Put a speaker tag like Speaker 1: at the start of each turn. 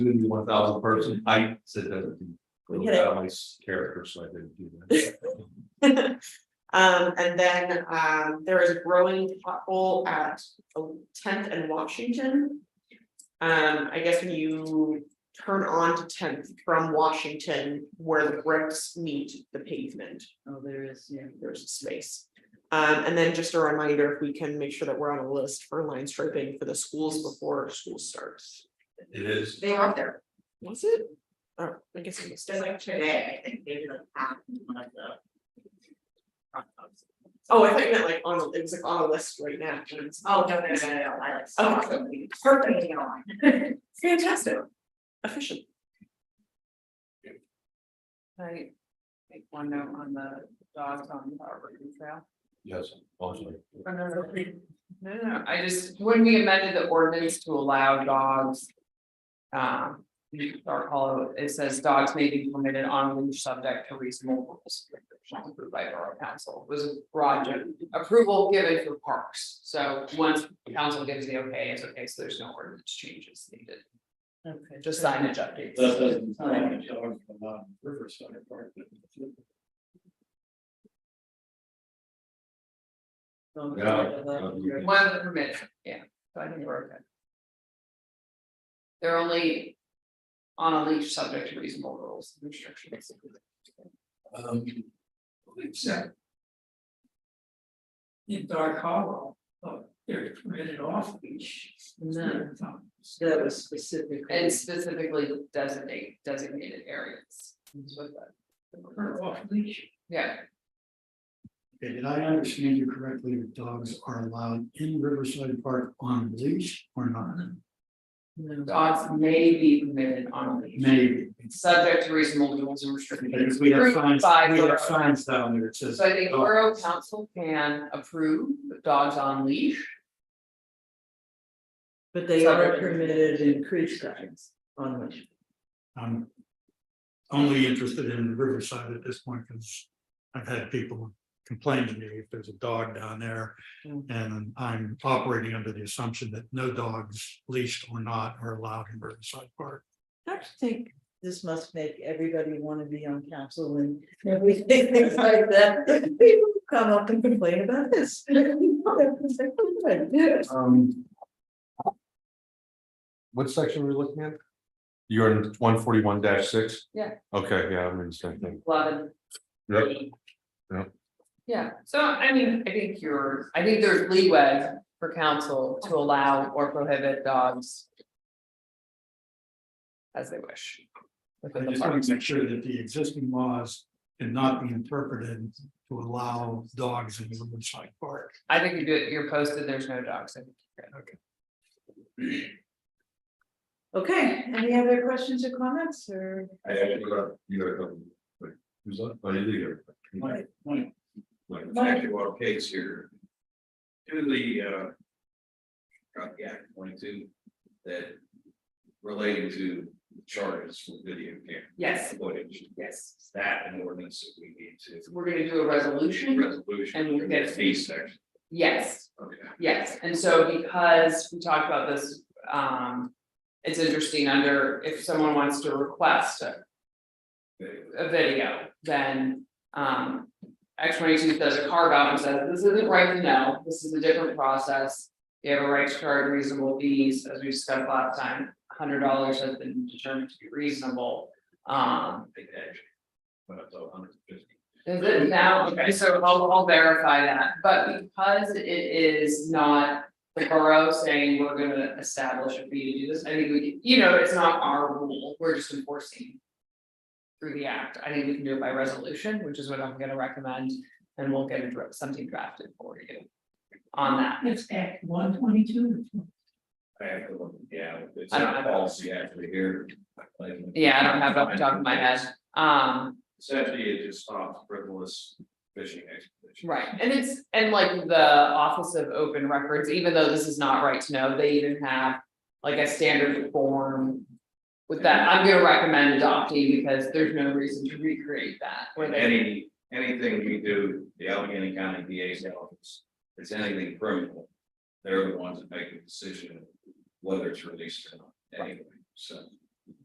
Speaker 1: gonna be one thousand person, I said that.
Speaker 2: We
Speaker 1: would
Speaker 2: hit
Speaker 1: be
Speaker 2: it.
Speaker 1: Out of my s- character, so I didn't do that.
Speaker 2: Um, and then, um, there is a growing pothole at Tenth and Washington. Um, I guess when you turn on to Tenth from Washington, where the bricks meet the pavement,
Speaker 3: Oh, there is, yeah.
Speaker 2: there's a space. Um, and then just a reminder, if we can make sure that we're on a list for line striping for the schools before school starts.
Speaker 1: It is,
Speaker 3: They are there.
Speaker 2: Was it? Oh, I guess I missed
Speaker 3: Just
Speaker 2: it.
Speaker 3: like today, I think they did a half one of the.
Speaker 2: Oh, I think that like on, a- it was like on a list right now. and it's-
Speaker 3: Oh, no, no, no, no, no, I like.
Speaker 2: Oh.
Speaker 3: Perfect, you know.
Speaker 2: Fantastic. Efficient.
Speaker 3: I make one note on the dogs on the Harvard Trail.
Speaker 1: yes, mostly.
Speaker 3: No, no,
Speaker 2: No, no, no, I just, when we amended the ordinance to allow dogs. Um, in Dark Hollow, it says dogs may be permitted on leash subject to reasonable rules. shall be Approved by Borough Council, It was a broad gen- approval given for parks, so once council gives the okay, it's okay, so there's no ordinance changes needed,
Speaker 3: Okay,
Speaker 2: just signage updates.
Speaker 4: That doesn't sound like a dog from um, Riverside Park. but it's-
Speaker 3: Oh,
Speaker 1: Yeah.
Speaker 2: One of the permits, yeah, so I think we're okay. They're only on a leash subject to reasonable rules and restrictions.
Speaker 4: Um, Except. In Dark Hollow, uh, they're permitted off leash.
Speaker 3: No. That was specific.
Speaker 2: And specifically designate designated areas. That's what that-
Speaker 4: Or off leash.
Speaker 2: Yeah,
Speaker 5: Okay, did I understand you correctly, that dogs are allowed in Riverside Park on leash or not?
Speaker 2: dogs may be permitted on a leash,
Speaker 5: Maybe,
Speaker 2: subject to reasonable rules and
Speaker 5: because
Speaker 2: restrictions.
Speaker 5: we have
Speaker 2: Approved
Speaker 5: signs,
Speaker 2: by
Speaker 5: we
Speaker 2: borough.
Speaker 5: have Oh. signs down there that says.
Speaker 2: So I think
Speaker 5: dog.
Speaker 2: borough council can approve dogs on leash.
Speaker 3: But they are permitted in creek signs on which.
Speaker 5: I'm only interested in Riverside at this point, because I've had people complain to me if there's a dog down there.
Speaker 3: Mm.
Speaker 5: And I'm operating under the assumption that no dogs, leashed or not, are allowed in Riverside Park.
Speaker 3: I actually think this must make everybody wanna be on council and everything things like that. People come up and complain about this.
Speaker 1: Um. What section were you looking at? You're in one forty-one six?
Speaker 2: Yeah.
Speaker 1: Okay, yeah, I'm in the same thing.
Speaker 2: Eleven.
Speaker 1: Yep. Yep.
Speaker 2: Yeah, so I mean, I think you're, I think there's leeway for council to allow or prohibit dogs. As they wish.
Speaker 5: I
Speaker 2: within the
Speaker 5: just want
Speaker 2: parks.
Speaker 5: to make sure that the existing laws cannot be interpreted to allow dogs in Riverside Park.
Speaker 2: I think you do it, you're posted, there's no dogs. I think you're good.
Speaker 3: Okay, any other questions or comments or?
Speaker 1: I actually got, you got a couple. Wait, Who's that? Oh, you do, you're-
Speaker 4: Mike, Mike,
Speaker 1: Like,
Speaker 3: Mike.
Speaker 1: our case here.
Speaker 6: to the uh. Got the act twenty-two that relating to charges for video camera
Speaker 2: Yes,
Speaker 6: footage,
Speaker 2: yes.
Speaker 6: It's that an ordinance that we need to.
Speaker 2: We're gonna do a resolution.
Speaker 6: Resolution.
Speaker 2: And we'll get it.
Speaker 6: Fee section,
Speaker 2: Yes,
Speaker 6: okay.
Speaker 2: Yes, and so because we talked about this, um, it's interesting under, if someone wants to request a. A video, then, um, X twenty-two does a carve out and says, this isn't right to know, this is a different process. You have a right to charge reasonable fees, as we discussed last time, hundred dollars has been determined to be reasonable. Um,
Speaker 6: Big edge. But it's a hundred and fifty.
Speaker 2: is it now, Oh, okay, so I'll, I'll verify that, but because it is not the borough saying we're gonna establish a fee to do this, I think we, can- you know, it's not our rule, we're just enforcing. Through the act, I think we can do it by resolution, which is what I'm gonna recommend, and we'll get a dra- something drafted for you. On that,
Speaker 4: it's Act one twenty-two.
Speaker 6: I have to look, yeah, it's
Speaker 2: I don't
Speaker 6: not
Speaker 2: have it.
Speaker 6: policy actually here. Like,
Speaker 2: yeah, I don't have it off the top of my head, um,
Speaker 6: Essentially, it just stops frivolous fishing expedition.
Speaker 2: Right, and it's, and like the Office of Open Records, even though this is not right to know, they even have like a standard form. With that, I'm gonna recommend adopting because there's no reason to recreate that, where
Speaker 6: When
Speaker 2: they,
Speaker 6: any, anything we do, the Allegheny County DA's office, it's anything criminal. They're the ones that make the decision of whether it's released or not, anyway, so.